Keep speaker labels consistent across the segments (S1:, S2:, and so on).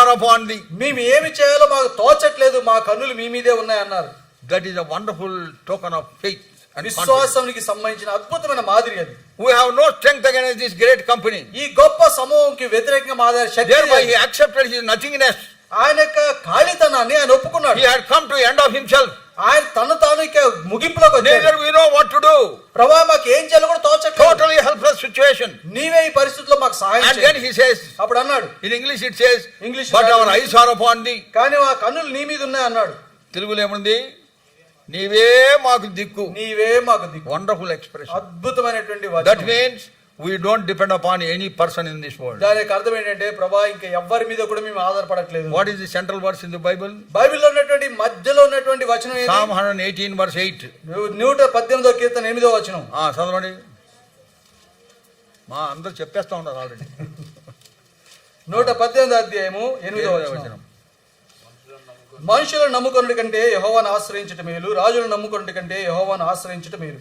S1: upon thee.
S2: మేము ఏమి చేయాలో మాకు తోచట్లేదు మా కన్నులు మీ మీదే ఉన్నాయన్నారు
S1: That is a wonderful token of faith and confidence.
S2: విశ్వాసానికి సంబంధించిన అద్భుతమైన మాదిరి అది
S1: We have no strength against this great company.
S2: ఈ గొప్ప సమూహంకి వ్యతిరేకంగా మాదిరి శక్తి
S1: Thereby he
S2: లేదు.
S1: accepted his nothingness.
S2: ఆయన యొక్క ఖాళీతనాన్ని ఆయన ఒప్పుకున్నాడు
S1: He had come to end of himself.
S2: ఆయన తన తాను ఇక ముగింపులోకి వచ్చాడు
S1: Neither we know what to do.
S2: ప్రభా మాకు ఏం చేయాలో కూడా తోచట్లేదు
S1: Totally helpless situation.
S2: నీవే ఈ పరిస్థితిలో మాకు సహాయం
S1: And then
S2: చేయి.
S1: he says,
S2: అప్పుడు అన్నాడు
S1: in English it says,
S2: English
S1: but
S2: రాదు.
S1: our eyes are upon thee.
S2: కానీ మా కన్నులు నీ మీద ఉన్నాయి అన్నాడు
S1: తెలుగులో ఏముంది నీవే మాకు దిక్కు
S2: నీవే మాకు దిక్కు
S1: వండర్ఫుల్ ఎక్స్ప్రెషన్
S2: అద్భుతమైనటువంటి
S1: దట్
S2: వచనం.
S1: Means we don't depend upon any person in this world
S2: దాని యొక్క అర్థం ఏంటంటే ప్రభా ఇంకా ఎవ్వరి మీద కూడా మేము ఆధారపడట్లేదు
S1: what is the central verse in the Bible
S2: బైబిల్లో ఉన్నటువంటి మధ్యలో ఉన్నటువంటి వచనం ఏది?
S1: Psalm hundred eighteen verse eight
S2: నూ- నూట పద్దెనిమిదో కీర్తన ఎనిమిదో వచనం
S1: చదవండి మా అందరు చెప్పేస్తా ఉన్నారు ఆల్రెడీ
S2: నూట పద్దెనిమిదో అధ్యాయము ఎనిమిదో వచనం మనుషులను నమ్ముకున్నటి కంటే యహోవాను ఆశ్రయించటం మేలు రాజులను నమ్ముకున్నటి కంటే యహోవాను ఆశ్రయించటం మేలు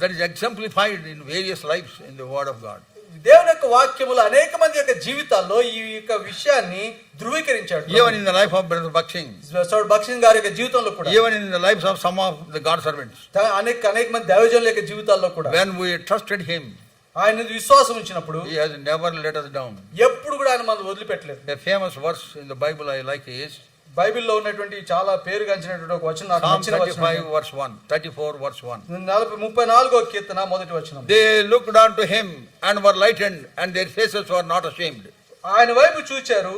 S1: that is exemplified in various lives in the word of God
S2: దేవుని యొక్క వాక్యములు అనేక మంది యొక్క జీవితాల్లో ఈ యొక్క విషయాన్ని ధృవీకరించాడు
S1: even in the life of brother Bakht Singh
S2: సోడ్ భక్సింగ్ గారి యొక్క జీవితంలో కూడా
S1: even in the life of some of the God servants
S2: తా- అనేక అనేక మంది దైవజనుల యొక్క జీవితాల్లో కూడా
S1: వెన్ వీ ట్రస్టెడ్ హిమ్
S2: ఆయన విశ్వాసం ఉంచినప్పుడు
S1: he has never let us down
S2: ఎప్పుడు కూడా ఆయన మనం వదిలిపెట్టలేదు
S1: A famous verse in the Bible I like is
S2: బైబిల్లో ఉన్నటువంటి చాలా పేరుగాంచినటువంటి ఒక వచనం నాకు
S1: Psalm
S2: నచ్చిన
S1: 35
S2: వచనం
S1: verse 1, 34 verse 1.
S2: నలభై ముప్పై నాలుగో కీర్తన మొదటి వచనం
S1: They looked unto him and were lightened and their faces were not ashamed.
S2: ఆయన వైపు చూచారు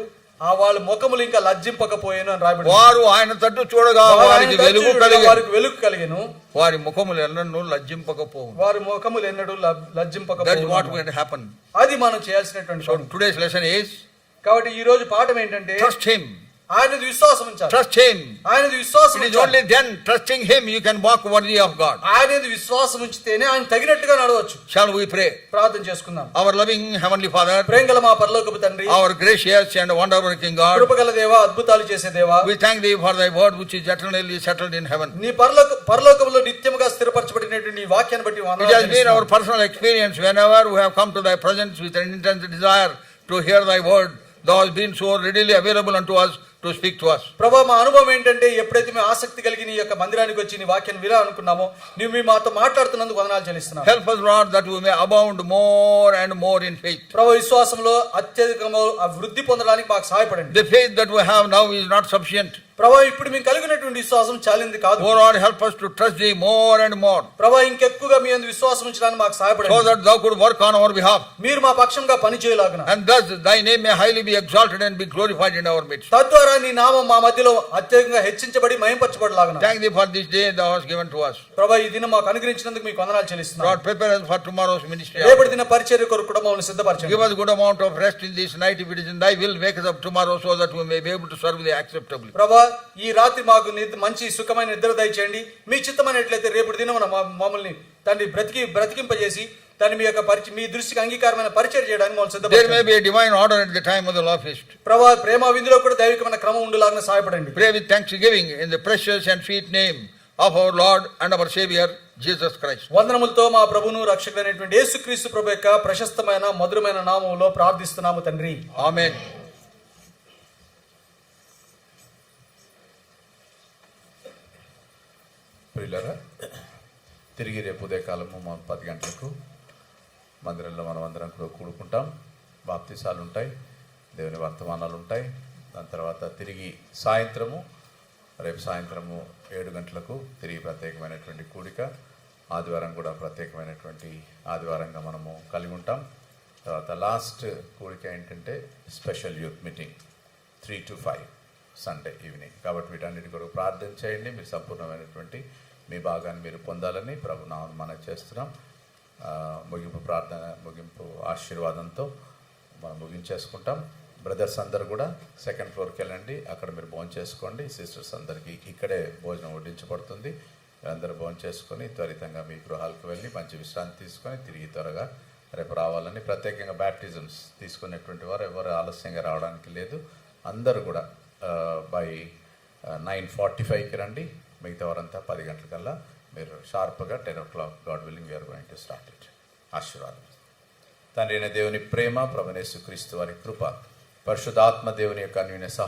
S2: ఆ వాళ్ళ ముఖములు ఇంకా లజ్జింపకపోయాను అని రాబడి
S1: వారు ఆయన తట్టు చూడగా వారికి వెలుగు కలిగి
S2: వారికి వెలుగు కలిగను
S1: వారి ముఖములు ఎన్నడూ లజ్జింపకపోవు
S2: వారి ముఖములు ఎన్నడూ లబ్-
S1: దట్ వాట్
S2: లజ్జింపకపోయాను
S1: విల్ హ్యాపన్
S2: అది మనం చేయాల్సినటువంటి
S1: సో
S2: పని.
S1: టుడేస్ లెసన్ ఈస్
S2: కాబట్టి ఈ రోజు పాఠం ఏంటంటే
S1: ట్రస్ట్ హిమ్
S2: ఆయనది విశ్వాసం ఉంచాలి
S1: ట్రస్ట్ హిమ్
S2: ఆయనది విశ్వాసం
S1: ఇట్ ఈస్
S2: ఉంచాలి.
S1: Only then trusting him you can walk worthy of God
S2: ఆయనది విశ్వాసం ఉంచితేనే ఆయన తగినట్టుగా నడవచ్చు
S1: షాల్ వీ ప్రే
S2: ప్రార్థన చేసుకుందాం
S1: అవర్ లవింగ్ హెవెన్లీ ఫాదర్
S2: ప్రేంగల మా పరలోకపు తండ్రి
S1: our gracious and wonder working God
S2: కృపగల దేవా అద్భుతాలు చేసే దేవా
S1: We thank thee for thy word which is eternally settled in heaven.
S2: నీ పరలోక పరలోకంలో నిత్యముగా స్థిరపరచబడినటువంటి నీ వాక్యాన్ని బట్టి
S1: It has been our
S2: వందనాలు
S1: personal experience whenever we have come to thy presence with an intense desire to hear thy word. Thou hast been so readily available unto us to speak to us.
S2: ప్రభా మా అనుభవం ఏంటంటే ఎప్పుడైతే మేము ఆసక్తి కలిగి నీ యొక్క మందిరానికి వచ్చి నీ వాక్యాన్ని వినాలనుకున్నామో నువ్వు మీ మాతో మాట్లాడుతున్నందుకు వందనాలు చెల్లిస్తున్నాం
S1: Help us, Lord, that we may abound more and more in faith.
S2: ప్రభా విశ్వాసంలో అత్యధికము ఆ వృద్ధి పొందడానికి మాకు సహాయపడండి
S1: The faith that we have now is not sufficient.
S2: ప్రభా ఇప్పుడు మేము కలిగినటువంటి విశ్వాసం చాలింది
S1: O
S2: కాదు
S1: Lord, help us to trust thee more and more
S2: ప్రభా ఇంకెక్కువగా మీ అందు విశ్వాసం ఉంచడానికి మాకు
S1: so
S2: సహాయపడండి
S1: that thou could work on our behalf
S2: మీరు మా పక్షంగా పని చేయలాగున
S1: and thus thy name may highly be exalted and be glorified in our midst.
S2: తద్వారా నీ నామం మా మధ్యలో అత్యధికంగా హెచ్చించబడి మయంపరచబడలాగున
S1: Thank thee for this day thou hast given to us.
S2: ప్రభా ఈ దినం మాకు అనుగ్రహించినందుకు మీకు వందనాలు చెల్లిస్తున్నాం
S1: Lord, prepare us for tomorrow's ministry.
S2: రేపటి దిన పరిచర్య కొరకు కూడా మమ్మల్ని సిద్ధపరచండి
S1: Give us good amount of rest in this night if it is in thy will. Make us up tomorrow so that we may be able to serve thee acceptably.
S2: ప్రభా ఈ రాత్రి మాకు నిద్ర- మంచి సుఖమైన నిద్ర దయచేయండి మీ చిత్తమైనట్లయితే రేపటి దినం మమ్మల్ని తండ్రి బ్రతికి బ్రతికింపజేసి తను మీ యొక్క పరిచ మీ దృష్టికి అంగీకారమైన పరిచయం చేయడానికి మమ్మల్ని
S1: There may
S2: సిద్ధపరచండి
S1: be a divine order at the time of the law feast.
S2: ప్రభా ప్రేమ విందులో కూడా దైవికమైన క్రమం ఉండేలాగా సహాయపడండి
S1: Pray with thanksgiving in the precious and sweet name of our Lord and our Savior, Jesus Christ.
S2: వందనములతో మా ప్రభును రక్షకుడైనటువంటి యేసుక్రీస్తు ప్రభు యొక్క ప్రశస్తమైన మధురమైన నామంలో ప్రార్థిస్తున్నాము తండ్రి
S1: Amen.
S3: ప్రియులరా తిరిగి రేపు ఉదయకాలము మా పది గంటలకు మందిరంలో మనం అందరం కూడా కూడుకుంటాం బాప్తిసాలు ఉంటాయి దేవుని వర్తమానాలు ఉంటాయి దాని తర్వాత తిరిగి సాయంత్రము రేపు సాయంత్రము ఏడు గంటలకు తిరిగి ప్రత్యేకమైనటువంటి కూడిక ఆదివారం కూడా ప్రత్యేకమైనటువంటి ఆదివారంగా మనము కలిగి ఉంటాం తర్వాత లాస్ట్ కూడిక ఏంటంటే special youth meeting three to five Sunday evening కాబట్టి వీటన్నిటి కొరకు ప్రార్థన చేయండి మీరు సంపూర్ణమైనటువంటి మీ భాగాన్ని మీరు పొందాలని ప్రభు నామను మనం చేస్తున్నాం ఆ, ముగింపు ప్రార్థన ముగింపు ఆశీర్వాదంతో మనం ముగించేసుకుంటాం బ్రదర్స్ అందరు కూడా సెకండ్ ఫ్లోర్కి వెళ్ళండి అక్కడ మీరు భోజనం చేసుకోండి సిస్టర్స్ అందరికీ ఇక్కడే భోజనం వడ్డించబడుతుంది అందరూ భోజనం చేసుకొని త్వరితంగా మీ గృహాలకు వెళ్ళి మంచి విశ్రాంతి తీసుకొని తిరిగి త్వరగా రేపు రావాలని ప్రత్యేకంగా బ్యాప్టిజమ్స్ తీసుకునేటువంటి వారు ఎవరు ఆలస్యంగా రావడానికి లేదు అందరూ కూడా బై నైన్ ఫార్టీ ఫైవ్కి రండి మిగతా వారంతా పది గంటలకల్లా మీరు షార్ప్గా ten o'clock God willing we're going to start it ఆశీర్వాదం తండ్రి అయిన దేవుని ప్రేమ ప్రభునేసు క్రీస్తు వారి కృప పరిశుద్ధాత్మ దేవుని యొక్క అన్యూన్య సహ